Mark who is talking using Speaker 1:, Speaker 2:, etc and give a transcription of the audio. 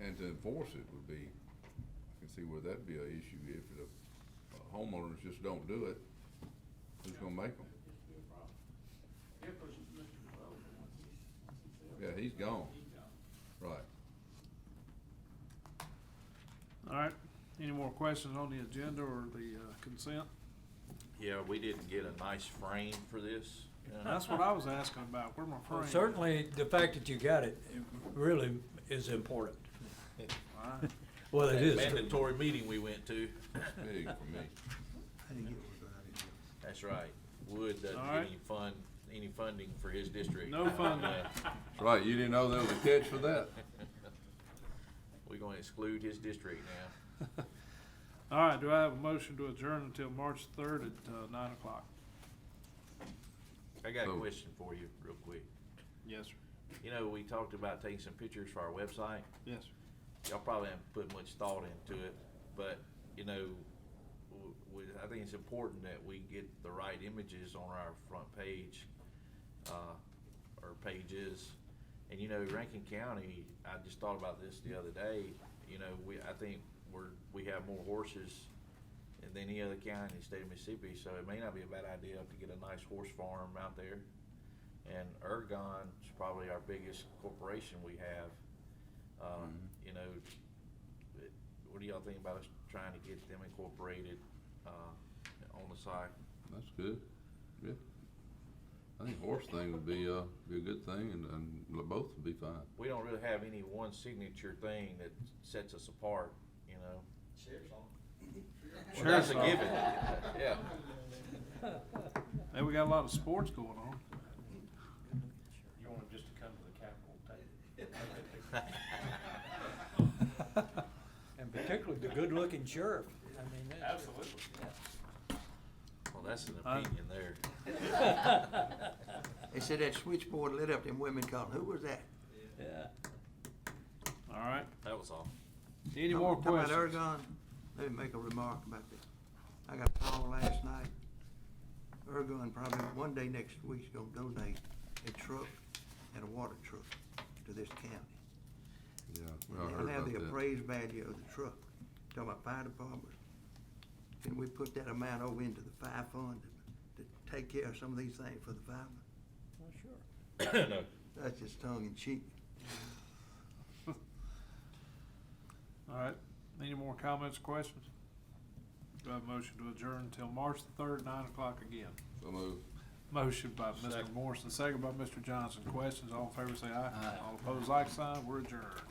Speaker 1: And to enforce it would be, I can see where that'd be a issue if the uh, homeowners just don't do it, who's gonna make them?
Speaker 2: It's be a problem. Here goes Mr. Glover, once he's, once he's there.
Speaker 1: Yeah, he's gone,
Speaker 2: He gone.
Speaker 1: right.
Speaker 3: All right, any more questions on the agenda or the uh, consent?
Speaker 4: Yeah, we didn't get a nice frame for this. uh,
Speaker 3: That's what I was asking about, where my
Speaker 5: Well,
Speaker 3: frame?
Speaker 5: Certainly, the fact that you got it it really is important.
Speaker 3: All right.
Speaker 5: Well, it
Speaker 4: that
Speaker 5: is.
Speaker 4: Mandatory meeting we went to.
Speaker 1: Big for me.
Speaker 4: That's right. Wood doesn't
Speaker 3: All right.
Speaker 4: get any fund, any funding for his district.
Speaker 3: No funding.
Speaker 1: That's right, you didn't know there was a catch for that?
Speaker 4: We're gonna exclude his district now.
Speaker 3: All right, do I have a motion to adjourn until March third at uh, nine o'clock?
Speaker 4: I got a
Speaker 1: So-
Speaker 4: question for you real quick.
Speaker 3: Yes, sir.
Speaker 4: You know, we talked about taking some pictures for our website.
Speaker 3: Yes,
Speaker 4: Y'all probably haven't put much thought into it, but, you know, w- we, I think it's important that we get the right images on our front page, uh, or pages. And, you know, Rankin County, I just thought about this the other day, you know, we, I think we're, we have more horses than any other county in the state of Mississippi, so it may not be a bad idea to get a nice horse farm out there. And Ergon's probably our biggest corporation we have. Um, you know, it- what do y'all think about us trying to get them incorporated, uh, on the site?
Speaker 1: That's good, yeah. I think horse thing would be, uh, be a good thing, and, and both would be fine.
Speaker 4: We don't really have any one signature thing that sets us apart, you know? Well, that's a
Speaker 3: Sheriff's
Speaker 4: given, yeah.
Speaker 3: hey, we got a lot of sports going on.
Speaker 2: You want him just to come to the Capitol, take it.
Speaker 5: And particularly the good-looking sheriff. I mean, that's-
Speaker 2: Absolutely.
Speaker 4: Well, that's an
Speaker 3: I-
Speaker 4: opinion there.
Speaker 6: They said that switchboard lit up them women calling. Who was that?
Speaker 5: Yeah.
Speaker 3: All right,
Speaker 4: That was all.
Speaker 3: any more
Speaker 6: Talking about
Speaker 3: questions?
Speaker 6: Ergon, let me make a remark about this. I got a call last night. Ergon probably one day next week's gonna donate a truck and a water truck to this county.
Speaker 1: Yeah. I
Speaker 6: They'll
Speaker 1: heard
Speaker 6: have the
Speaker 1: about that.
Speaker 6: appraised value of the truck. Talking about fire department. Can we put that amount over into the fire fund to, to take care of some of these things for the firemen?
Speaker 5: Well, sure.
Speaker 4: No.
Speaker 6: That's just tongue in cheek.
Speaker 3: All right, any more comments, questions? Do I have a motion to adjourn until March the third, nine o'clock again?
Speaker 1: So moved.
Speaker 3: Motion by Mr. Morrison, second by Mr. Johnson, questions, all in favor say aye. All opposed, like sign, we're adjourned.